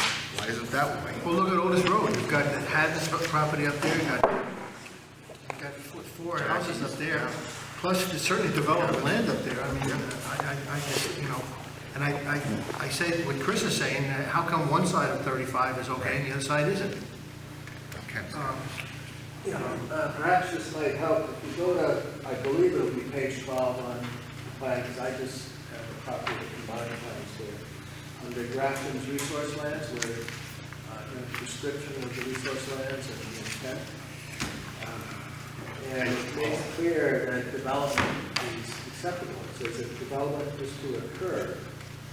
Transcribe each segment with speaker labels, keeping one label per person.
Speaker 1: it that way. Well, look at Otis Road, you've got, had this property up there, you've got, you've got four- four houses up there, plus you certainly developed land up there, I mean, I, I, I just, you know, and I, I, I say what Chris is saying, uh, how come one side of thirty-five is okay and the other side isn't? Um,
Speaker 2: You know, uh, perhaps this might help, if you go to, I believe it'll be page twelve on the plan, because I just have a copy of the combined plans here. Under Grafton's resource lands, where, uh, you know, description of the resource lands and the intent. Um, And it makes clear that development is acceptable, it says if development is to occur,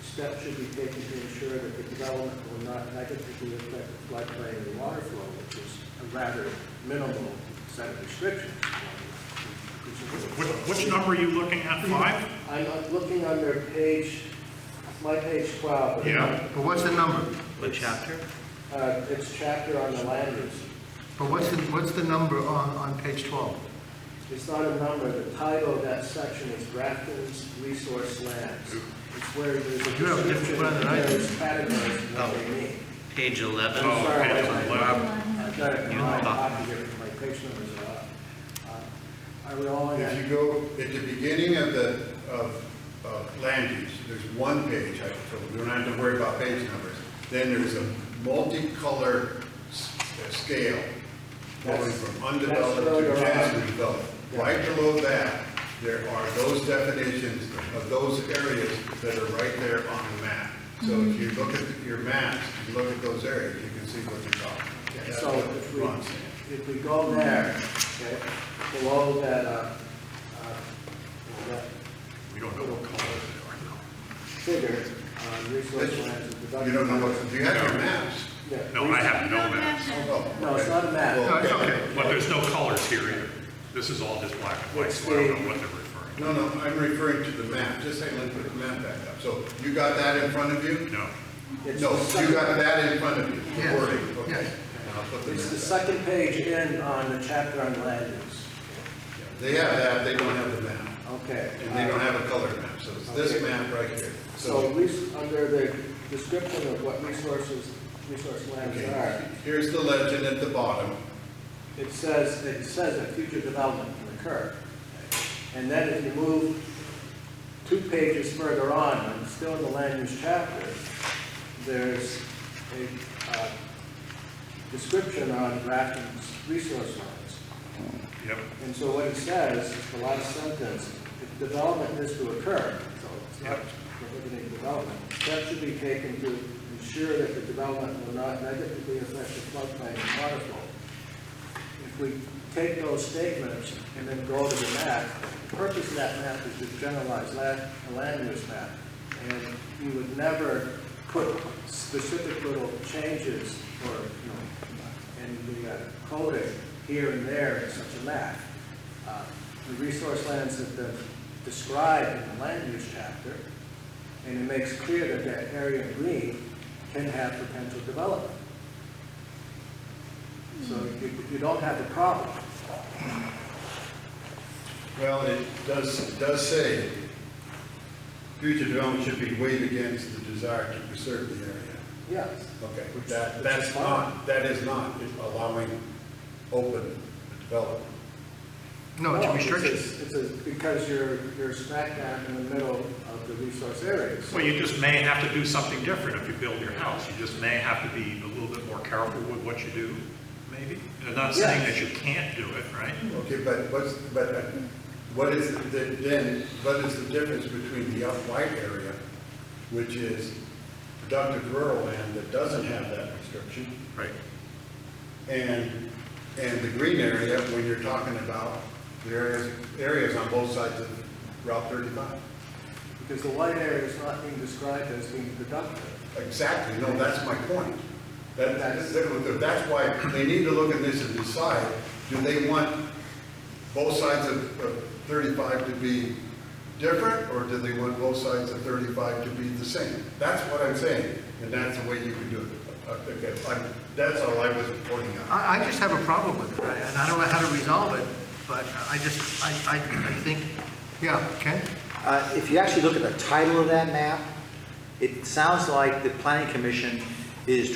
Speaker 2: steps should be taken to ensure that the development will not negatively affect the floodplain and water flow, which is a rather minimal set of restrictions.
Speaker 3: Which, which number are you looking at, five?
Speaker 2: I'm uh, looking under page, my page twelve. but,
Speaker 3: Yeah.
Speaker 1: But what's the number?
Speaker 4: What chapter?
Speaker 2: Uh, it's chapter on the land use.
Speaker 1: But what's the, what's the number on, on page twelve?
Speaker 2: It's not a number, the title of that section is Grafton's Resource Lands. It's where there's a
Speaker 1: You have a different
Speaker 2: description,
Speaker 1: plan
Speaker 2: and
Speaker 1: than I do.
Speaker 2: there's categories of what they mean.
Speaker 4: Page 11?
Speaker 3: Oh,
Speaker 2: sorry,
Speaker 3: page
Speaker 2: I-
Speaker 3: 11.
Speaker 2: I've got it in
Speaker 4: You
Speaker 2: my
Speaker 4: know.
Speaker 2: copy here, my page numbers are up. Uh, Are we all in
Speaker 5: If
Speaker 2: that?
Speaker 5: you go at the beginning of the, of, of land use, there's one page, I can fill, we don't have to worry about page numbers. Then there's a multicolor s- uh, scale going from
Speaker 2: That's where
Speaker 5: undeveloped
Speaker 2: you're
Speaker 5: to
Speaker 2: at.
Speaker 5: densely developed.
Speaker 2: Yeah.
Speaker 5: Right below that, there are those definitions of those areas that are right there on the map. So if you look at your maps, you look at those areas, you can see what you're talking about. That's
Speaker 2: So
Speaker 5: what
Speaker 2: if we,
Speaker 5: Ron's saying.
Speaker 2: if we go there, okay, below that, uh, uh, that
Speaker 5: We don't know what colors they are now.
Speaker 2: figure, uh, resource lands and production.
Speaker 5: You don't know what, do you have your maps?
Speaker 2: Yeah.
Speaker 3: No, I have no map,
Speaker 5: Oh,
Speaker 2: No, it's not a map.
Speaker 1: No,
Speaker 5: Well,
Speaker 1: it's okay.
Speaker 3: but there's no colors here either. This is all just black and white, so I don't know what they're referring
Speaker 5: No, no, I'm referring to the map, just say, let's put the map back up. So you got that in front of you?
Speaker 3: to. No.
Speaker 2: It's
Speaker 5: No,
Speaker 2: the
Speaker 5: you
Speaker 2: second-
Speaker 5: got that in front of you, the
Speaker 1: Yes,
Speaker 5: wording, okay.
Speaker 1: yes.
Speaker 5: And I'll put the
Speaker 2: It's the
Speaker 5: map back.
Speaker 2: second page in on the chapter on land use.
Speaker 5: They have that, they don't have the map,
Speaker 2: Okay.
Speaker 5: and they don't have a color map, so it's this
Speaker 2: Okay.
Speaker 5: map right here.
Speaker 2: So at least under the description of what resources, resource lands
Speaker 5: Okay,
Speaker 2: are,
Speaker 5: here's the legend at the bottom,
Speaker 2: it says, it says that future development can occur. And then if you move two pages further on, and still in the land use chapter, there's a uh, description on Grafton's resource lands.
Speaker 3: Yep,
Speaker 2: And so what it says, is the last sentence, if development is to occur, so it's not prohibiting development, steps should be taken to ensure that the development will not negatively affect the floodplain and water flow. If we take those statements and then go to the map, the purpose of that map is to generalize land, a land use map. And you would never put specific little changes or, you know, in the uh, coding here and there in such a map. Uh, The resource lands that the described in the land use chapter, and it makes clear that that area in green can have potential development. So you, you don't have the problem.
Speaker 5: well, it does, it does say, future development should be weighed against the desire to preserve the area.
Speaker 2: Yes.
Speaker 5: Okay,
Speaker 2: Which-
Speaker 5: that,
Speaker 2: which is
Speaker 5: that's
Speaker 2: fine.
Speaker 5: not, that is not allowing open development.
Speaker 1: No, it's a
Speaker 2: No,
Speaker 1: restriction.
Speaker 2: It's a, it's a- because you're, you're smack dab in the middle of the resource areas.
Speaker 3: well, you just may have to do something different if you build your house. You just may have to be a little bit more careful with what you do, maybe. I'm not saying that you can't do it, right?
Speaker 5: Okay, but what's, but uh, what is, the- then, what is the difference between the up-white area, which is productive rural land that doesn't have that restriction,
Speaker 3: Right.
Speaker 5: and, and the green area when you're talking about the areas, areas on both sides of Route 35?
Speaker 2: Because the white area is not being described as being productive.
Speaker 5: Exactly, no, that's my point. That, that's, that's why they need to look at this and decide, do they want both sides of of thirty-five to be different, or do they want both sides of thirty-five to be the same? That's what I'm saying, and that's the way you can do it. I think that- I- That's all I was pointing out.
Speaker 1: I, I just have a problem with it, I- and I don't know how to resolve it, but I just, I, I, I think, yeah, Ken?
Speaker 6: Uh, If you actually look at the title of that map, it sounds like the planning commission is